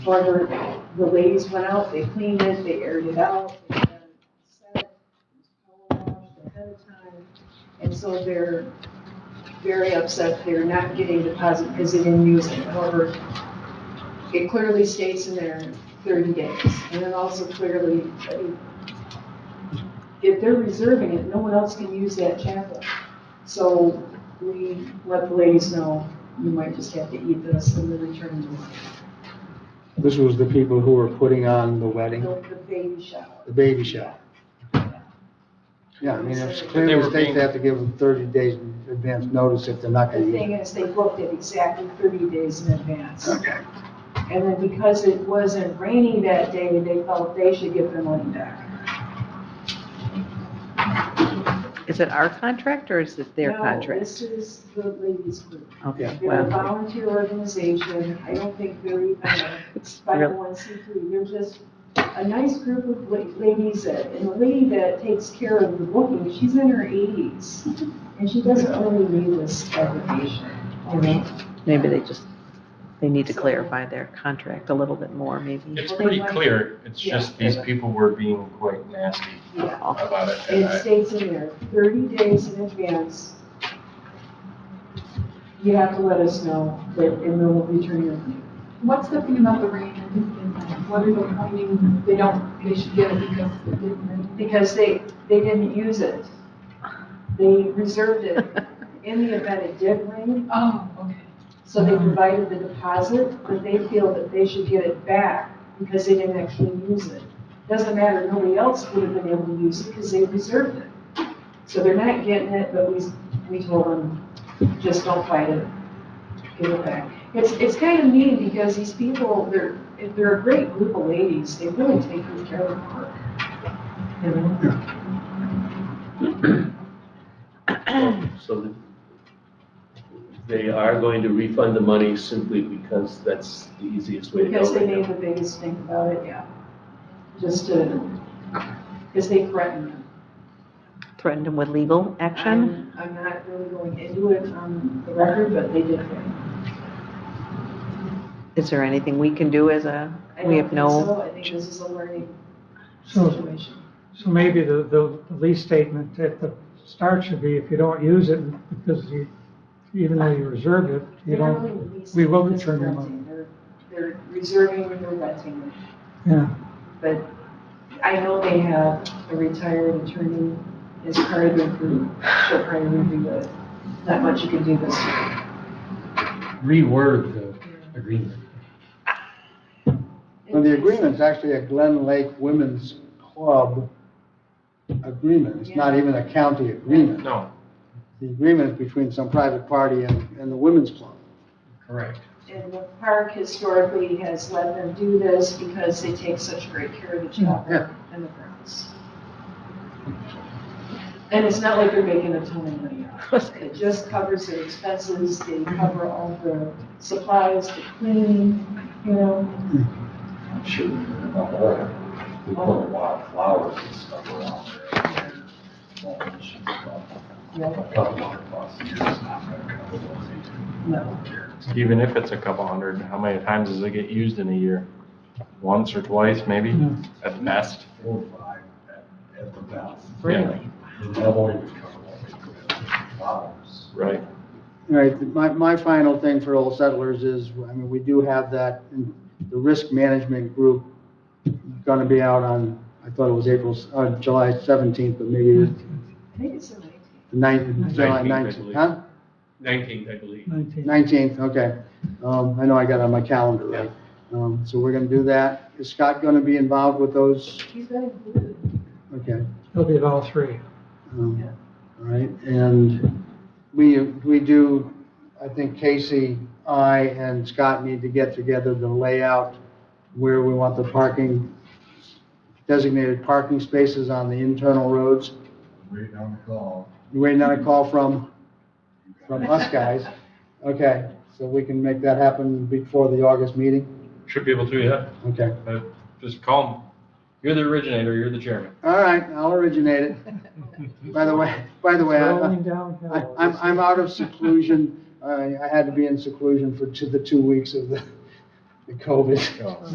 However, the ladies went out, they cleaned it, they aired it out, they had it set, it was power washed ahead of time. And so they're very upset they're not getting deposit because they didn't use it. However, it clearly states in there thirty days. And then also clearly, I mean, if they're reserving it, no one else can use that chapel. So we let the ladies know, you might just have to eat this and then return the money. This was the people who were putting on the wedding, The baby shower. the baby shower. Yeah, I mean, it's They clear were the state being- they have to give them thirty days in advance notice if they're not The gonna use thing it. is, they booked it exactly thirty days in advance. Okay. And then because it wasn't raining that day, they felt they should give their money back. Is it our contract or is it their No, contract? This is the ladies group. Okay, They're a well, volunteer organization. I don't think they're even a it's real- 501c3. They're just a nice group of la- ladies that, and the lady that takes care of the booking, she's in her eighties. And she doesn't really need this aggravation, you know? maybe they just, they need to clarify their contract a little bit more, maybe. It's pretty clear, it's Yeah. just these people were being quite nasty Yeah. about it. and It I- states in there, thirty days in advance. You have to let us know that, and then we'll return your money. What's the thing about the rain and and what are they claiming they don't, they should get it because it didn't rain? Because they, they didn't use it. They reserved it in the event it did rain, Oh, okay. so they provided the deposit, but they feel that they should get it back because they didn't actually use it. Doesn't matter, nobody else would have been able to use it because they reserved it. So they're not getting it, but we, we told them, just don't fight it, give it back. It's, it's kind of mean because these people, they're, they're a great group of ladies, they really take good care of the park. You know? So they are going to refund the money simply because that's the easiest way to Because go they right made now. the biggest thing about it, yeah. Just to, because they threatened them. Threatened them with legal action? I'm- Um, I'm not really going into it on the record, but they did threaten. Is there anything we can do as a, I we don't have think no, so. I think this is a learning So- situation. So maybe the, the the lease statement at the start should be, if you don't use it, because you, even though you reserved it, They're you don't, really leasing we will this return your renting. They're- They're reserving and they're renting it. yeah. But I know they have a retired attorney as part of their group. She'll probably review it. Not much you can do this year. reword the agreement. And the agreement's actually a Glen Lake Women's Club agreement, it's not even a county agreement. No, The agreement is between some private party and, and the women's club. Correct. And the park historically has let them do this because they take such great care of the Yeah. chapel and the grounds. And it's not like they're making a ton of money off it. It just covers their expenses, they cover all the supplies, the cleaning, you know. I'm sure you remember that. We put a lot of flowers and stuff around there. Well, she's got No, A couple hundred bucks a year, it's not gonna cover those eight No. years. even if it's a couple hundred, how many times does it get used in a year? Once or twice, maybe, at best? Four, or five at, at the best. really? That won't even cover what we put in flowers. Right. All right, my, my final thing for Old Settlers is, I mean, we do have that, and the risk management group gonna be out on, I thought it was April, s- uh, July seventeenth, but maybe it's I think it's the nineteenth. the ninth, 19th, July I nineteenth, believe. huh? Nineteenth, I believe. Nineteen. Nineteenth, okay. Um, I know I got it on my calendar, right? Um, so we're gonna do that. Is Scott gonna be involved with those? He's got included. Okay. It'll be all three. Um, All right, and we, we do, I think Casey, I, and Scott need to get together the layout where we want the parking, designated parking spaces on the internal roads. Waiting on the call. You're Waiting on a call from, You got from us guys. Okay, so we can make that happen before the August meeting? Should be able to, yeah. Okay. Just call 'em. You're the originator, you're the chairman. All right, I'll originate it. By the way, by the way, I- Rolling downhill. I- I'm, I'm out of seclusion. I, I had to be in seclusion for two, the two weeks of the the COVID. Oh.